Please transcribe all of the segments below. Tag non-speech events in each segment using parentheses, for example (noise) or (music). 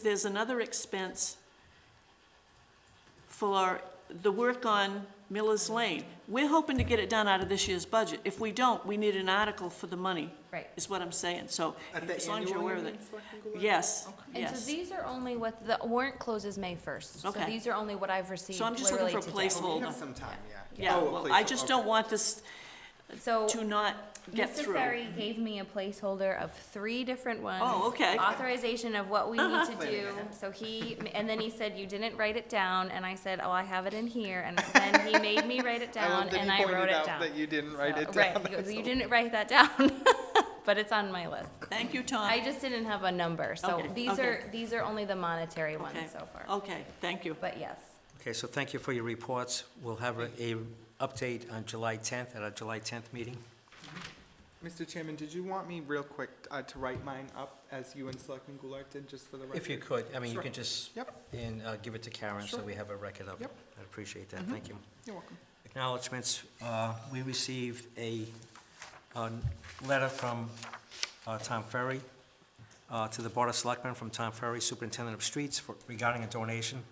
there's another expense for the work on Miller's Lane. We're hoping to get it done out of this year's budget. If we don't, we need an article for the money. Right. Is what I'm saying, so At the as long as you're annual aware of it. meeting, Selectman Goulart? Yes, And so yes. these are only what, the warrant closes May 1st. So Okay. these are only what I've received So I'm just looking literally for a today. Oh, we Placeholder. have some time, yeah. Yeah, Oh, a well, I placeholder, just okay. don't want this So to not get Mr. through. Ferry gave me a placeholder of three different ones. Oh, okay. Uh-huh. Authorization of what we need to Wait a do. minute. So he, and then he said, you didn't write it down, and I said, oh, I have it in here. And then he made me write it (laughs) I down, love that and he I pointed wrote it out down. That you didn't write So- it Right, down. he (laughs) goes, you didn't write that down, (laughs) but it's on my list. Thank you, Tom. I just didn't have a number, so Uh. Okay, these okay. are, these are only the monetary Okay. ones so far. Okay, thank you. But yes, Okay, so thank you for your reports. We'll have a, a update on July 10th, at our July 10th meeting. Mr. Chairman, did you want me real quick uh, to write mine up as you and Selectman Goulart did, just for the record? If you could, I mean, you Sure. can just, Yep, and uh, give it to Karen, so Sure. we have a record of it. Yep. Mm-hmm. I appreciate that, thank you. you're welcome. Acknowledgements, uh, we received a, a letter from uh, Tom Ferry uh, to the Board of Selectmen from Tom Ferry, Superintendent of Streets, for- regarding a donation.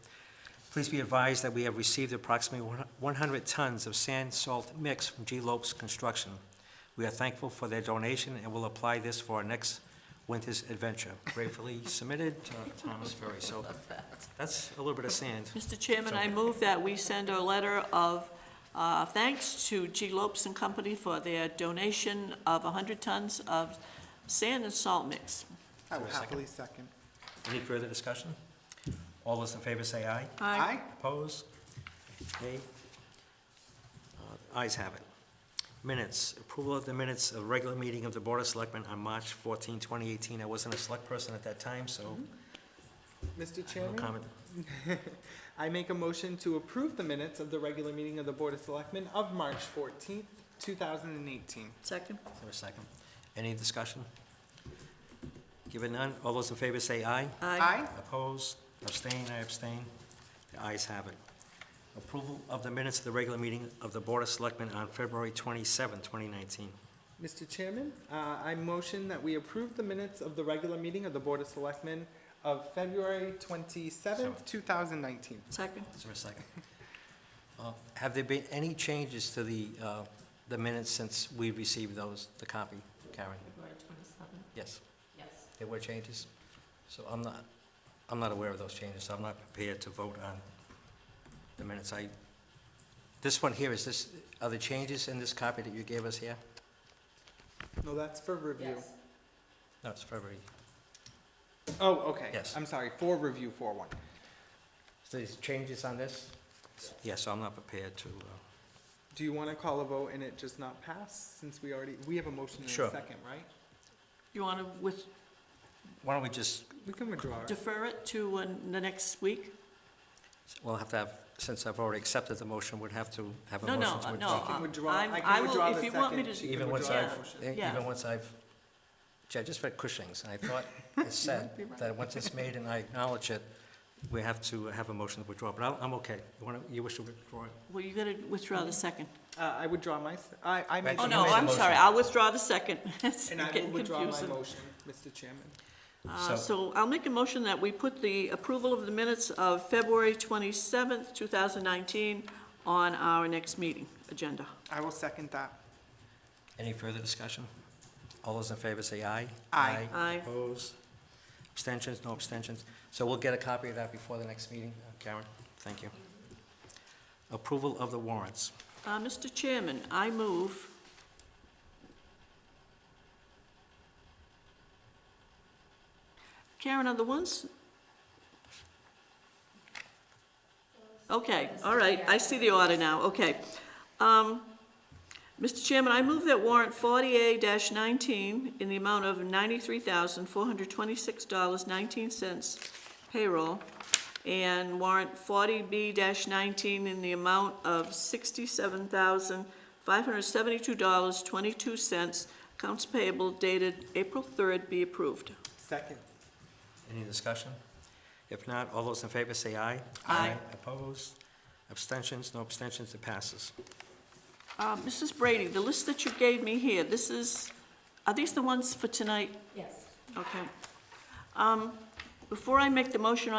Please be advised that we have received approximately one- 100 tons of sand salt mix from G. Lopes Construction. We are thankful for their donation and will apply this for our next winter's adventure. Gratefully submitted, uh, Thomas Ferry. So that's a little bit of sand. Mr. Chairman, I move that we send a letter of uh, thanks to G. Lopes and Company for their donation of 100 tons of sand and salt mix. I will happily second. Any further discussion? All those in favor say aye. Aye. Opposed? Nay? Uh, Ayes have it. Minutes, approval of the minutes of regular meeting of the Board of Selectmen on March 14, 2018. I wasn't a select person at that time, so Mr. no Chairman, comment. I make a motion to approve the minutes of the regular meeting of the Board of Selectmen of March fourteenth, two thousand and eighteen. Second? Is there a second? Any discussion? Given none, all those in favor say aye. Aye. Opposed? Abstain? I abstain. The ayes have it. Approval of the minutes of the regular meeting of the Board of Selectmen on February 27, 2019. Mr. Chairman, uh, I motion that we approve the minutes of the regular meeting of the Board of Selectmen of February twenty-seventh, two thousand nineteen. Second? Is there a second? Uh, Have there been any changes to the, uh, the minutes since we received those, the copy, Karen? Yes, yes. there were changes? So I'm not, I'm not aware of those changes, so I'm not prepared to vote on the minutes. I, this one here, is this, are the changes in this copy that you gave us here? No, that's for review. No, it's February. Oh, okay. Yes. I'm sorry, for review, for one. So there's changes on this? Yes, so I'm not prepared to, uh, Do you want to call a vote and it just not pass, since we already, we have a motion in a Sure. second, right? You want to with, why don't we just, We can withdraw. it. defer it to uh, the next week? we'll have to have, since I've already accepted the motion, we'd have to have a No, motion to no, withdraw. no. She can withdraw- uh, I'm- I can I will- withdraw if the you want me second. to- She can Even once withdraw the I've, motion. e- Yeah. even once I've, gee, I just read Cushing's, and I thought (laughs) it said that once it's made and I acknowledge it, we have to have a motion to withdraw, but I'm, I'm okay. You want to, you wish to withdraw it? Well, you got to withdraw the second. Uh, I withdraw my, s- I, I make. So Oh, a you no, made the I'm motion. sorry, motion. I'll withdraw the second. (laughs) It's And I will getting withdraw my confusing. motion, Mr. Chairman. Uh, So I'll make a motion that we put the approval of the minutes of February 27th, 2019 on our next meeting agenda. I will second that. Any further discussion? All those in favor say aye. Aye. Aye. Opposed? Abstentions, no abstentions. So we'll get a copy of that before the next meeting. Uh, Karen, thank you. Approval of the warrants. Uh, Mr. Chairman, I move Karen, are the ones? Okay, all right, I see the order now, okay. Um, Mr. Chairman, I move that warrant forty-eight nineteen in the amount of ninety-three thousand, four hundred twenty-six dollars, nineteen cents payroll, and warrant forty B nineteen in the amount of sixty-seven thousand, five hundred seventy-two dollars, twenty-two cents, accounts payable dated April third be approved. Second. Any discussion? If not, all those in favor say aye. Aye. Opposed? Abstentions, no abstentions, it passes. Uh, Mrs. Brady, the list that you gave me here, this is, are these the ones for tonight? Yes. Okay. Um, Before I make the motion